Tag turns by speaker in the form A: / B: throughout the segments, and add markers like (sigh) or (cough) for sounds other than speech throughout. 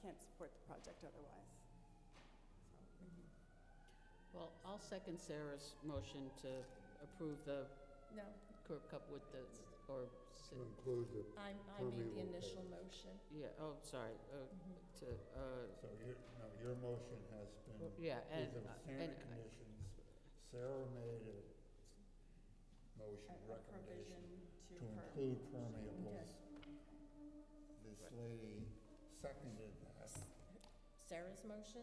A: can't support the project otherwise.
B: Well, I'll second Sarah's motion to approve the
C: No,
B: curb cut with the, or, si-
D: to include the,
C: I, I made the
D: Permeable
C: initial motion. Mm-hmm.
B: yeah, oh, sorry, uh, to, uh,
D: so your, no, your motion has been, with
B: yeah, and, uh,
D: the
B: and,
D: standard conditions, Sarah made a motion
A: A- A
D: recommendation
A: provision to
D: to
A: her.
D: include permeables. This lady seconded that,
C: Sarah's motion?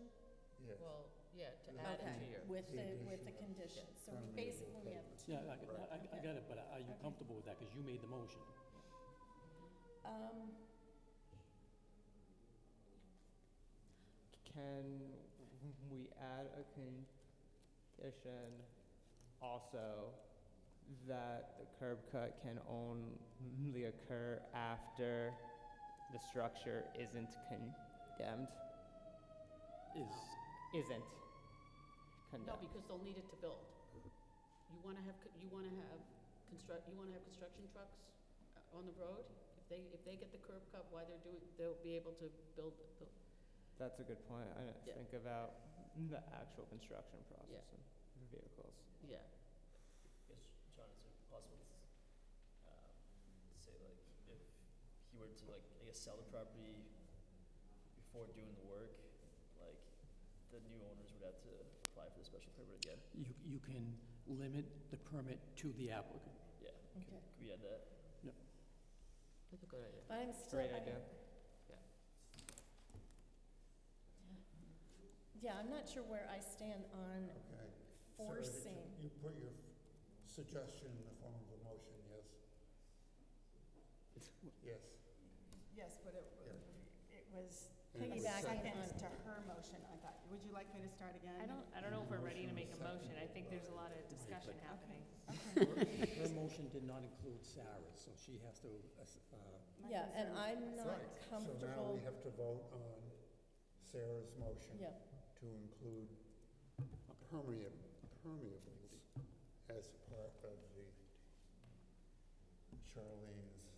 D: yes.
B: well, yeah, to
D: Okay.
B: add it to your,
C: With the, with the
D: Condition.
C: conditions, so
D: Permeable
C: we basically have two.
E: Yeah, I, I- I, I got it, but are you
C: Okay.
E: comfortable with that? Because you made the motion.
C: Um,
F: Can we add a condition also that the curb cut can only occur after the structure isn't condemned?
E: Is,
F: Isn't
B: no,
F: condemned.
B: because they'll need it to build. You wanna have, co- you wanna have construct, you wanna have construction trucks uh, on the road? If they, if they get the curb cut while they're doing, they'll be able to build, the-
F: That's a good point. I didn't
B: Yeah.
F: think about the actual construction
B: Yeah.
F: process and vehicles.
B: yeah.
G: Yes, John, is it possible to, um, say like, if he were to like, I guess sell the property before doing the work, like, the new owners would have to apply for the special permit again?
E: you, you can limit the permit to the applicant.
F: (laughs)
G: Yeah,
C: okay.
G: could we add that?
B: That's a good idea.
C: But I'm still.
F: Great
C: I-
F: idea.
C: Yeah, I'm not sure where I stand on
D: Okay. Sarah, did you-
C: forcing.
D: You put your suggestion in the form of a motion, yes? Yes.
A: Yes, but it, w- it was
D: And it was
C: Piggybacking
D: seconded.
A: second to her motion, I thought. Would you like me to start again?
H: I don't, I don't know if we're ready to make a motion, I think there's a lot of discussion happening.
E: Her motion did not include Sarah's, so she has to, uh,
A: My
C: Yeah, and
A: concern-
C: I'm not
D: Right. So now
C: comfortable.
D: we have to vote on Sarah's motion
C: Yeah,
D: to include permeable, permeables as part of the Charlene's,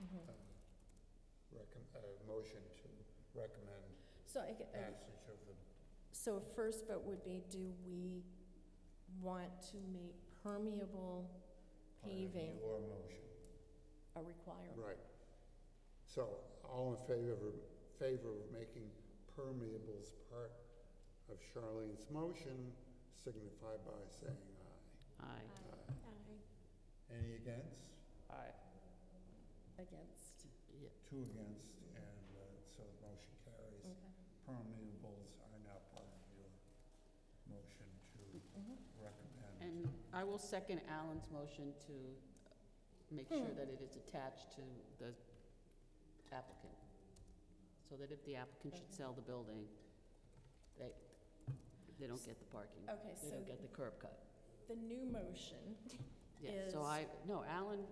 C: mhm.
D: uh, recom, uh, motion to recommend
C: so I, get- I-
D: passage of the
C: so a first vote would be, do we want to make permeable
D: part of
C: Paving.
D: your motion.
C: a requirement?
D: Right. So, all in favor, of- favor of making permeables part of Charlene's motion, signify by saying aye.
B: Aye.
D: Aye. Any against?
F: Aye.
C: Against,
B: Yeah,
D: Two against, and uh, so the motion carries.
C: okay.
D: Permeables are now part of your motion to
C: Mhm.
D: recommend.
B: And I will second Alan's motion to make sure
C: Hmm.
B: that it is attached to the applicant. So that if the applicant should sell the building, they, they don't get the parking.
C: Okay,
B: They
C: so
B: don't get the curb cut.
C: the new motion,
B: Yeah, so
C: Is-
B: I, no, Alan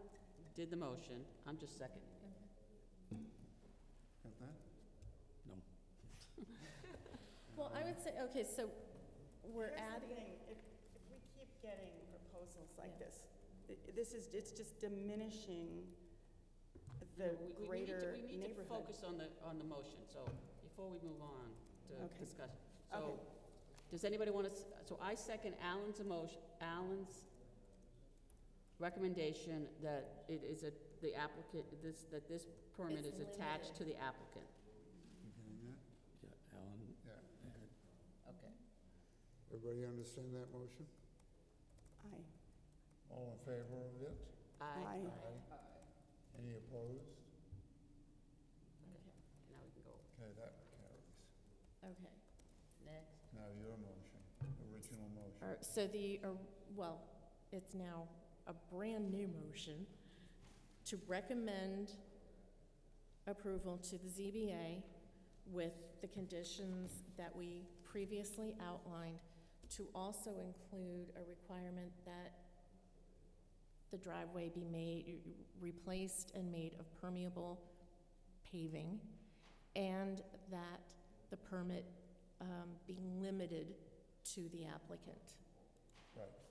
B: did the motion, I'm just seconding it.
D: Got that?
E: no.
C: well, I would say, okay, so we're
A: Here's the
C: adding,
A: thing, If, if we keep getting proposals like
C: Yeah.
A: this, i- this is, it's just diminishing the
B: We- we need to-
A: greater
B: We need to
A: neighborhood.
B: focus on the, on the motion, so before we move on
A: Okay.
B: to discuss.
A: Okay.
B: So, does anybody want to, so I second Alan's emotion, Alan's recommendation that it is a, the applicant, this, that this permit
C: It's
B: is attached to the applicant.
D: You getting that?
E: Yeah, Alan,
D: Yeah, okay.
B: Okay.
D: Everybody understand that motion?
A: Aye.
D: All in favor of it?
B: Aye.
A: Aye.
D: Aye. Any opposed?
B: Now we can go
D: Okay, that carries.
C: okay.
B: next.
D: Now your motion, original motion.
C: All right, so the, or- well, it's now a brand-new motion to recommend approval to the ZBA with the conditions that we previously outlined, to also include a requirement that the driveway be made, replaced and made of permeable paving, and that the permit um, be limited to the applicant.
D: Right,